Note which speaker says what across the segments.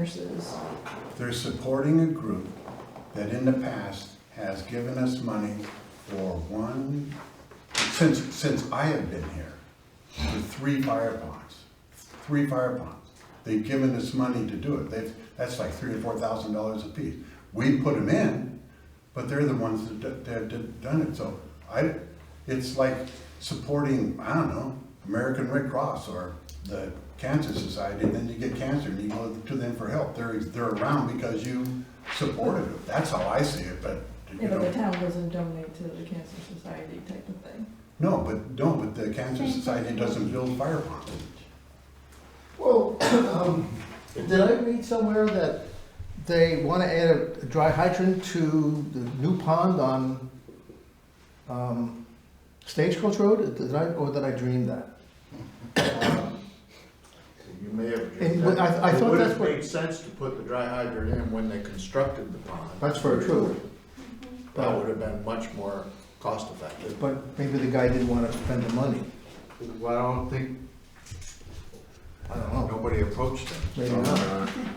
Speaker 1: nurses.
Speaker 2: They're supporting a group that in the past has given us money for one, since, since I have been here, for three fire ponds, three fire ponds. They've given us money to do it. They've, that's like three or four thousand dollars apiece. We put them in, but they're the ones that, d- that did- done it. So I, it's like supporting, I don't know, American Red Cross or the Cancer Society, and then you get cancer and you go to them for help. They're, they're around because you supported them. That's how I see it, but, you
Speaker 1: Yeah, but the
Speaker 2: know.
Speaker 1: town doesn't donate to the Cancer Society type of thing.
Speaker 2: No, but, no, but the Cancer
Speaker 3: Same.
Speaker 2: Society doesn't build fire ponds.
Speaker 4: Well, um, did I read somewhere that they want to add a dry hydrant to the new pond on um, Stagecoach Road? Did I, or did I dream that?
Speaker 5: You may have.
Speaker 4: And what- I- I thought
Speaker 5: It would
Speaker 4: that's
Speaker 5: have
Speaker 4: what-
Speaker 5: made sense to put the dry hydrant in when they constructed the pond.
Speaker 4: That's very true.
Speaker 5: That would have been much more cost effective.
Speaker 4: But maybe the guy didn't want to spend the money.
Speaker 5: Well, I don't think,
Speaker 4: I don't know.
Speaker 5: nobody approached them.
Speaker 4: Maybe
Speaker 6: Uh,
Speaker 4: not.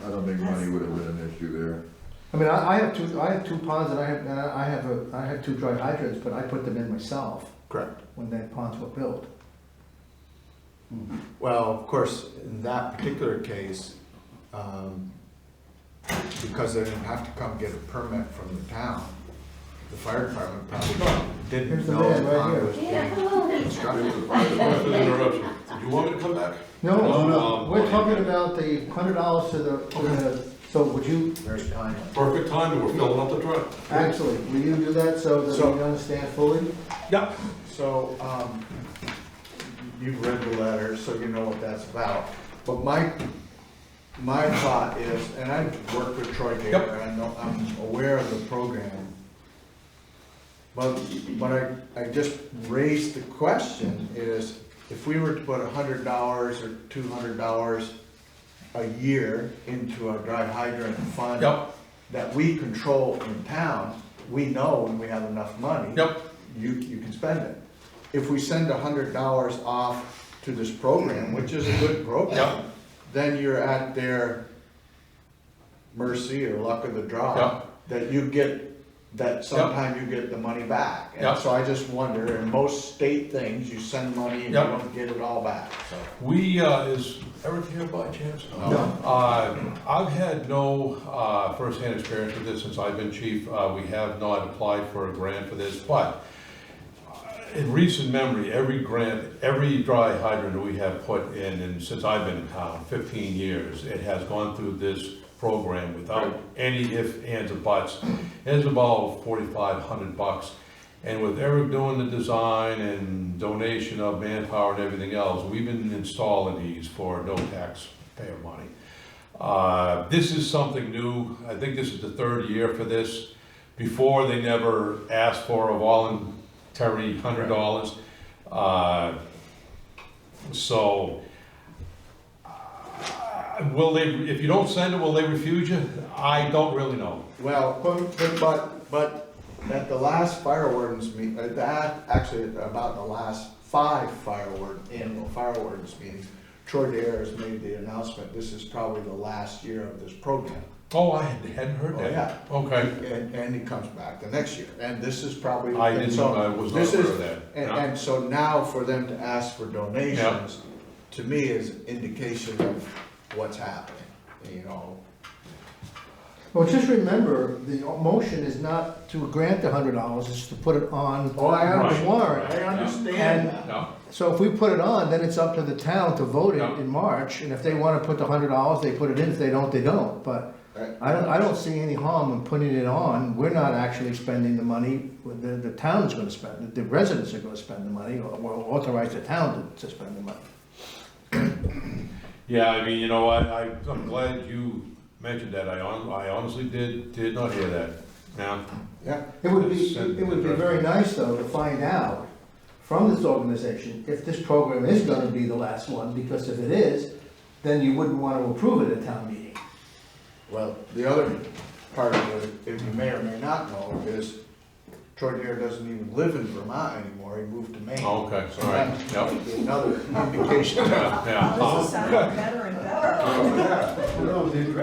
Speaker 6: I don't think money would have been an issue there.
Speaker 4: I mean, I, I have two, I have two ponds and I have, and I have a, I have two dry hydrants, but I put them in myself
Speaker 5: Correct.
Speaker 4: when that ponds were built.
Speaker 5: Well, of course, in that particular case, um, because they didn't have to come get a permit from the town, the fire department probably
Speaker 4: Here's
Speaker 5: didn't
Speaker 4: the
Speaker 5: know
Speaker 4: man
Speaker 5: the
Speaker 4: right
Speaker 5: pond
Speaker 4: here.
Speaker 5: was being constructed.
Speaker 7: Interruption. Do you want me to come back? Um,
Speaker 4: No,
Speaker 7: no.
Speaker 4: we're talking about the hundred dollars to the, to the, so would you,
Speaker 5: Very timely.
Speaker 7: Perfect time, we're filling up the truck.
Speaker 4: actually, will you do that so that
Speaker 5: So-
Speaker 4: we understand fully?
Speaker 5: Yeah. So, um, you've read the letter, so you know what that's about. But my, my thought is, and I work with Troy Gator, I know, I'm aware of the program. But, but I, I just raised the question is, if we were to put a hundred dollars or two hundred dollars a year into a dry hydrant fund.
Speaker 7: Yep.
Speaker 5: That we control in town, we know when we have enough money
Speaker 7: Yep.
Speaker 5: you, you can spend it. If we send a hundred dollars off to this program, which is a good
Speaker 7: Yeah.
Speaker 5: program, then you're at their mercy or luck of the
Speaker 7: Yeah.
Speaker 5: draw, that you get, that sometime you get the money back.
Speaker 7: Yeah.
Speaker 5: And so I just wonder, in most state things, you send money and you
Speaker 7: Yeah.
Speaker 5: don't get it all back, so.
Speaker 7: We, uh, is Eric here by chance?
Speaker 5: No.
Speaker 7: Uh, I've had no, uh, firsthand experience with this since I've been chief. Uh, we have not applied for a grant for this, but in recent memory, every grant, every dry hydrant that we have put in, and since I've been in town, fifteen years, it has gone through this program without any ifs, ands, or buts. It's about forty-five hundred bucks. And with Eric doing the design and donation of manpower and everything else, we've been installing these for no taxpayer money. Uh, This is something new. I think this is the third year for this. Before, they never asked for a voluntary hundred dollars. Uh, So, uh, will they, if you don't send it, will they refuse you? I don't really know.
Speaker 5: Well, but- but- but, but at the last fire wardens meet, at that, actually about the last five fire warden, annual fire wardens meetings, Troy Dare has made the announcement, this is probably the last year of this program.
Speaker 7: Oh, I hadn't heard
Speaker 5: Oh,
Speaker 7: that.
Speaker 5: yeah.
Speaker 7: Okay.
Speaker 5: And, and he comes back the next year, and this is probably.
Speaker 7: I didn't-
Speaker 5: so
Speaker 7: I was not
Speaker 5: this
Speaker 7: aware
Speaker 5: is-
Speaker 7: of that.
Speaker 5: And,
Speaker 7: Yeah.
Speaker 5: and so now for them to ask for donations, to me is indication of what's happening, you know?
Speaker 4: Well, just remember, the motion is not to grant the hundred dollars, it's to put it on
Speaker 5: Oh, I
Speaker 4: the
Speaker 7: understand.
Speaker 4: warrant.
Speaker 5: understand
Speaker 4: And-
Speaker 7: No.
Speaker 4: So if we put it on, then it's up to the town to vote it
Speaker 7: Yeah.
Speaker 4: in March, and if they wanna put the hundred dollars, they put it in, if they don't, they don't, but
Speaker 5: Right.
Speaker 4: I don't, I don't see any harm in putting it on, we're not actually spending the money, the, the town's gonna spend, it. the residents are gonna spend the money, or or authorize the town to, to spend the money.
Speaker 7: Yeah, I mean, you know, I, I, I'm glad you mentioned that, I hon, I honestly did, did not hear that, now.
Speaker 5: Yeah.
Speaker 4: It would be, it would be very nice, though, to find out from this organization if this program is gonna be the last one, because if it is, then you wouldn't wanna approve it at town meeting.
Speaker 5: Well, the other part of it, if you may or may not know, is Troy Dare doesn't even live in Vermont anymore, he moved to Maine.
Speaker 7: Oh, Okay,
Speaker 5: So
Speaker 7: all right,
Speaker 5: that's
Speaker 7: yep,
Speaker 5: Another indication
Speaker 7: yeah, yeah.
Speaker 1: This is sounding better and better.
Speaker 2: No, the